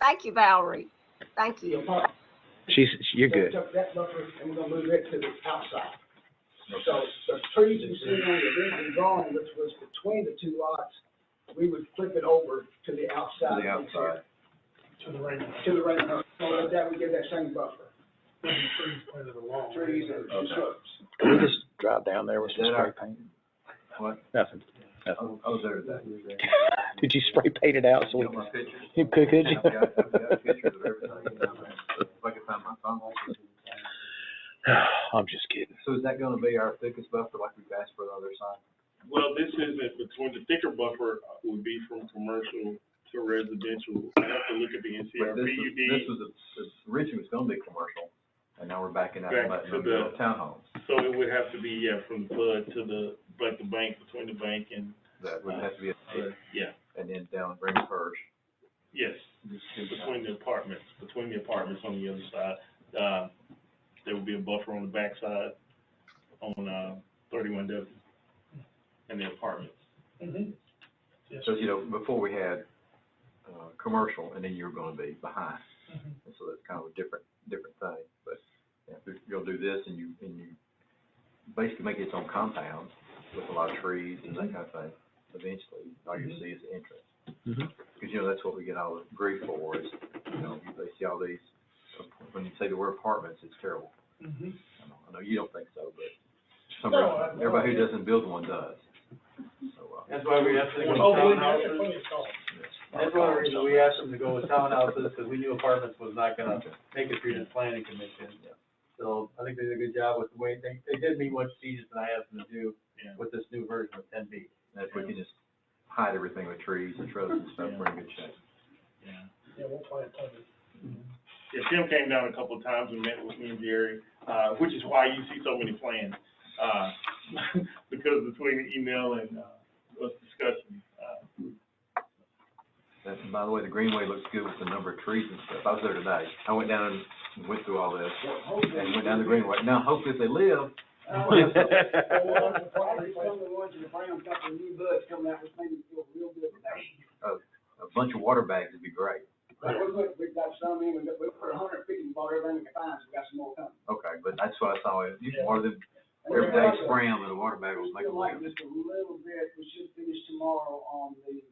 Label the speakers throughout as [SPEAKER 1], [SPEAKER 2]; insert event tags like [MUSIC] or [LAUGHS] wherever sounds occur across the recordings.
[SPEAKER 1] Thank you, Valerie. Thank you.
[SPEAKER 2] Your part.
[SPEAKER 3] She's, you're good.
[SPEAKER 2] Took that buffer, and we're gonna move it to the outside. So the trees you see on the original drawing, which was between the two lots, we would flip it over to the outside.
[SPEAKER 4] To the outside.
[SPEAKER 5] to the right,
[SPEAKER 2] To the right, so with that, we get that same buffer,
[SPEAKER 5] that's pretty part of the wall.
[SPEAKER 2] trees and and
[SPEAKER 4] Okay.
[SPEAKER 2] shrubs.
[SPEAKER 3] Can we just drive down there with some
[SPEAKER 4] Did I-
[SPEAKER 3] spray paint?
[SPEAKER 4] What?
[SPEAKER 3] Nothing.
[SPEAKER 4] I was, I was there today.
[SPEAKER 3] Did you spray paint it out so we,
[SPEAKER 4] Got [SIGHS] my pictures.
[SPEAKER 3] you could, could
[SPEAKER 4] I've got- I've got pictures of
[SPEAKER 3] you?
[SPEAKER 4] everything. If I can find my phone.
[SPEAKER 3] I'm just kidding.
[SPEAKER 4] So is that gonna be our thickest buffer like we've asked for the other side?
[SPEAKER 6] Well, this isn't, between the thicker buffer uh, would be from commercial to residential. I have to look at the
[SPEAKER 4] But this was, this
[SPEAKER 6] NCRPUD,
[SPEAKER 4] was, a- this originally was gonna be commercial, and now we're backing out
[SPEAKER 6] Back
[SPEAKER 4] and letting them
[SPEAKER 6] to
[SPEAKER 4] build
[SPEAKER 6] the-
[SPEAKER 4] townhomes.
[SPEAKER 6] so it would have to be, yeah, from the flood to the, like the bank, between the bank and,
[SPEAKER 4] That would have to be, a-
[SPEAKER 6] yeah,
[SPEAKER 4] and then down Green First.
[SPEAKER 6] yes, between the apartments, between the apartments on the other side. Uh, there would be a buffer on the backside on, uh, thirty-one W and the apartments.
[SPEAKER 5] Mm-hmm, Yes.
[SPEAKER 4] So, you know, before we had, uh, commercial, and then you were gonna be behind.
[SPEAKER 5] Mhm.
[SPEAKER 7] Mm-hmm.
[SPEAKER 4] And so that's kind of a different, different thing, but yeah, if you'll do this and you, and you basically make its own compound with a lot of trees and
[SPEAKER 7] Mm-hmm.
[SPEAKER 4] that kind of thing, eventually, all you see is the entrance.
[SPEAKER 3] Mhm.
[SPEAKER 4] Because, you know, that's what we get all grief for is, you know, you- they see all these, when you say the word apartments, it's terrible.
[SPEAKER 5] Mhm.
[SPEAKER 4] I know- I know you don't think so, but some,
[SPEAKER 2] No, I-
[SPEAKER 4] everybody who doesn't build one does. So, uh,
[SPEAKER 7] That's why we asked them to go
[SPEAKER 2] Oh, we-
[SPEAKER 7] with townhouses. That's one of the reasons we uh, asked them to go with townhouses, because we knew apartments was not gonna make it through the planning commission.
[SPEAKER 4] Yeah.
[SPEAKER 7] So I think they did a good job with the way, they, they did meet what Jesus and I asked them to do
[SPEAKER 6] Yeah.
[SPEAKER 7] with this new version of ten B.
[SPEAKER 4] and if we can just hide everything with trees and shrubs and stuff, we're in good shape.
[SPEAKER 6] Yeah.
[SPEAKER 5] Yeah, we'll play it, totally.
[SPEAKER 6] Yeah, Tim came down a couple of times and met with me and Jerry, uh, which is why you see so many plans, uh, [LAUGHS] because between the email and, uh, us discussing, uh,
[SPEAKER 4] That's, by the way, the greenway looks good with the number of trees and stuff. I was there today. I went down and went through all this and went down
[SPEAKER 2] [LAUGHS]
[SPEAKER 4] the greenway. Now, hopefully if they live, [LAUGHS]
[SPEAKER 2] Some of the ones in the brown, got the new buds coming out, which made me feel real good about it.
[SPEAKER 4] a bunch of water bags would be great.
[SPEAKER 2] But we put, we got some in, we got- we put a hundred feet and bought everything we could find, so we got some more coming.
[SPEAKER 4] Okay, but that's what I saw. You can water them, every day spray them in a water bag will make
[SPEAKER 2] Still
[SPEAKER 4] them
[SPEAKER 2] like
[SPEAKER 4] live.
[SPEAKER 2] just a little bit, we should finish tomorrow on the,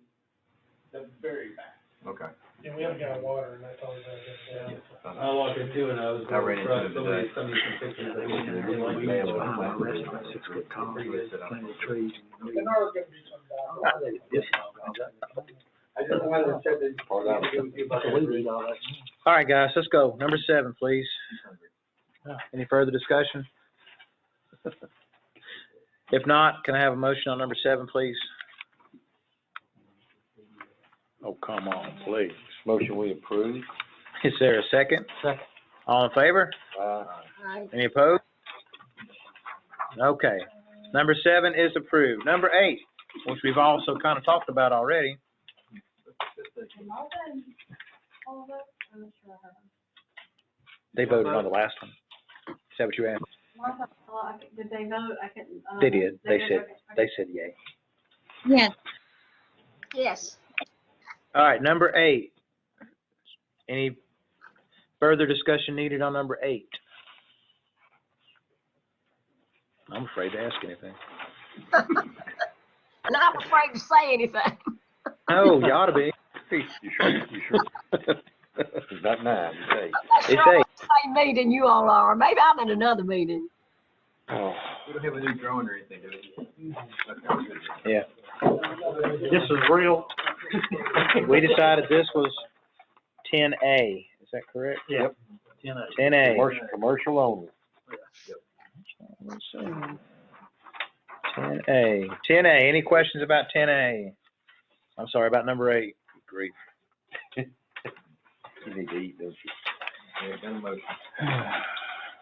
[SPEAKER 2] the very back.
[SPEAKER 4] Okay.
[SPEAKER 5] Yeah, we haven't got water, and that's always our
[SPEAKER 4] Yeah.
[SPEAKER 5] good.
[SPEAKER 4] Uh,
[SPEAKER 7] I walked into it, and I was
[SPEAKER 4] I
[SPEAKER 7] going
[SPEAKER 4] ran into
[SPEAKER 7] across
[SPEAKER 4] him
[SPEAKER 7] somebody,
[SPEAKER 4] today.
[SPEAKER 7] somebody some pictures. I didn't
[SPEAKER 4] Yeah,
[SPEAKER 7] really
[SPEAKER 4] really
[SPEAKER 7] like.
[SPEAKER 4] bad.
[SPEAKER 2] The nerve gets me sometimes.
[SPEAKER 7] I just wanted to check that. It was about the bridge.
[SPEAKER 3] [LAUGHS] All right, guys, let's go. Number seven, please. Any further discussion? [LAUGHS] If not, can I have a motion on number seven, please?
[SPEAKER 8] Oh, come on, please. Motion we approve.
[SPEAKER 3] Is there a second? Second. All in favor?
[SPEAKER 8] Uh,
[SPEAKER 1] Aye.
[SPEAKER 3] Any opposed? Okay. Number seven is approved. Number eight, which we've also kind of talked about already. They voted on the last one. Is that what you asked?
[SPEAKER 9] Martha, uh, I c- did they vote? I couldn't. uh,
[SPEAKER 3] They did. They said-
[SPEAKER 9] okay, okay.
[SPEAKER 3] They said yay.
[SPEAKER 10] Yes,
[SPEAKER 1] Yes.
[SPEAKER 3] All right, number eight. Any further discussion needed on number eight? I'm afraid to ask anything.
[SPEAKER 1] And I'm afraid to say anything. [LAUGHS]
[SPEAKER 3] No, Oh, you ought to be.
[SPEAKER 8] [LAUGHS] you sure, you sure? It's not nine, it's eight.
[SPEAKER 1] I'm
[SPEAKER 3] It's
[SPEAKER 1] not sure
[SPEAKER 3] eight.
[SPEAKER 1] what the same meeting you all are. Maybe I'm in another meeting.
[SPEAKER 8] Oh,
[SPEAKER 4] We don't have a new drone or anything, do we? Okay, we're good.
[SPEAKER 3] This is real. We decided this was ten A, is that correct?
[SPEAKER 7] Yeah.
[SPEAKER 3] Ten A.
[SPEAKER 8] commercial, commercial only.
[SPEAKER 3] Ten A, ten A, any questions about ten A? I'm sorry, about number eight. [LAUGHS]
[SPEAKER 8] Great. You need to eat, don't you?
[SPEAKER 4] Yeah, got a motion.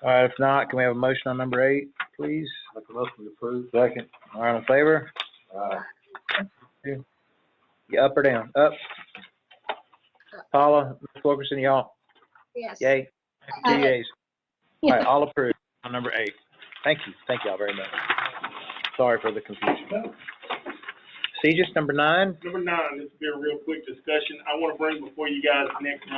[SPEAKER 3] All right, if not, can we have a motion on number eight, please?
[SPEAKER 4] Make a motion to approve.
[SPEAKER 8] Second.
[SPEAKER 3] All right, in favor?
[SPEAKER 4] Uh,
[SPEAKER 3] You up or down? Up. Paula, Ms. Wilkerson, y'all,
[SPEAKER 1] Yes.
[SPEAKER 3] yay, two
[SPEAKER 10] Aye.
[SPEAKER 3] yays. All right, all approved on number eight. Thank you, thank y'all very much. Sorry for the confusion. See, just number nine?
[SPEAKER 6] number nine, this will be a real quick discussion. I wanna bring before you guys next month.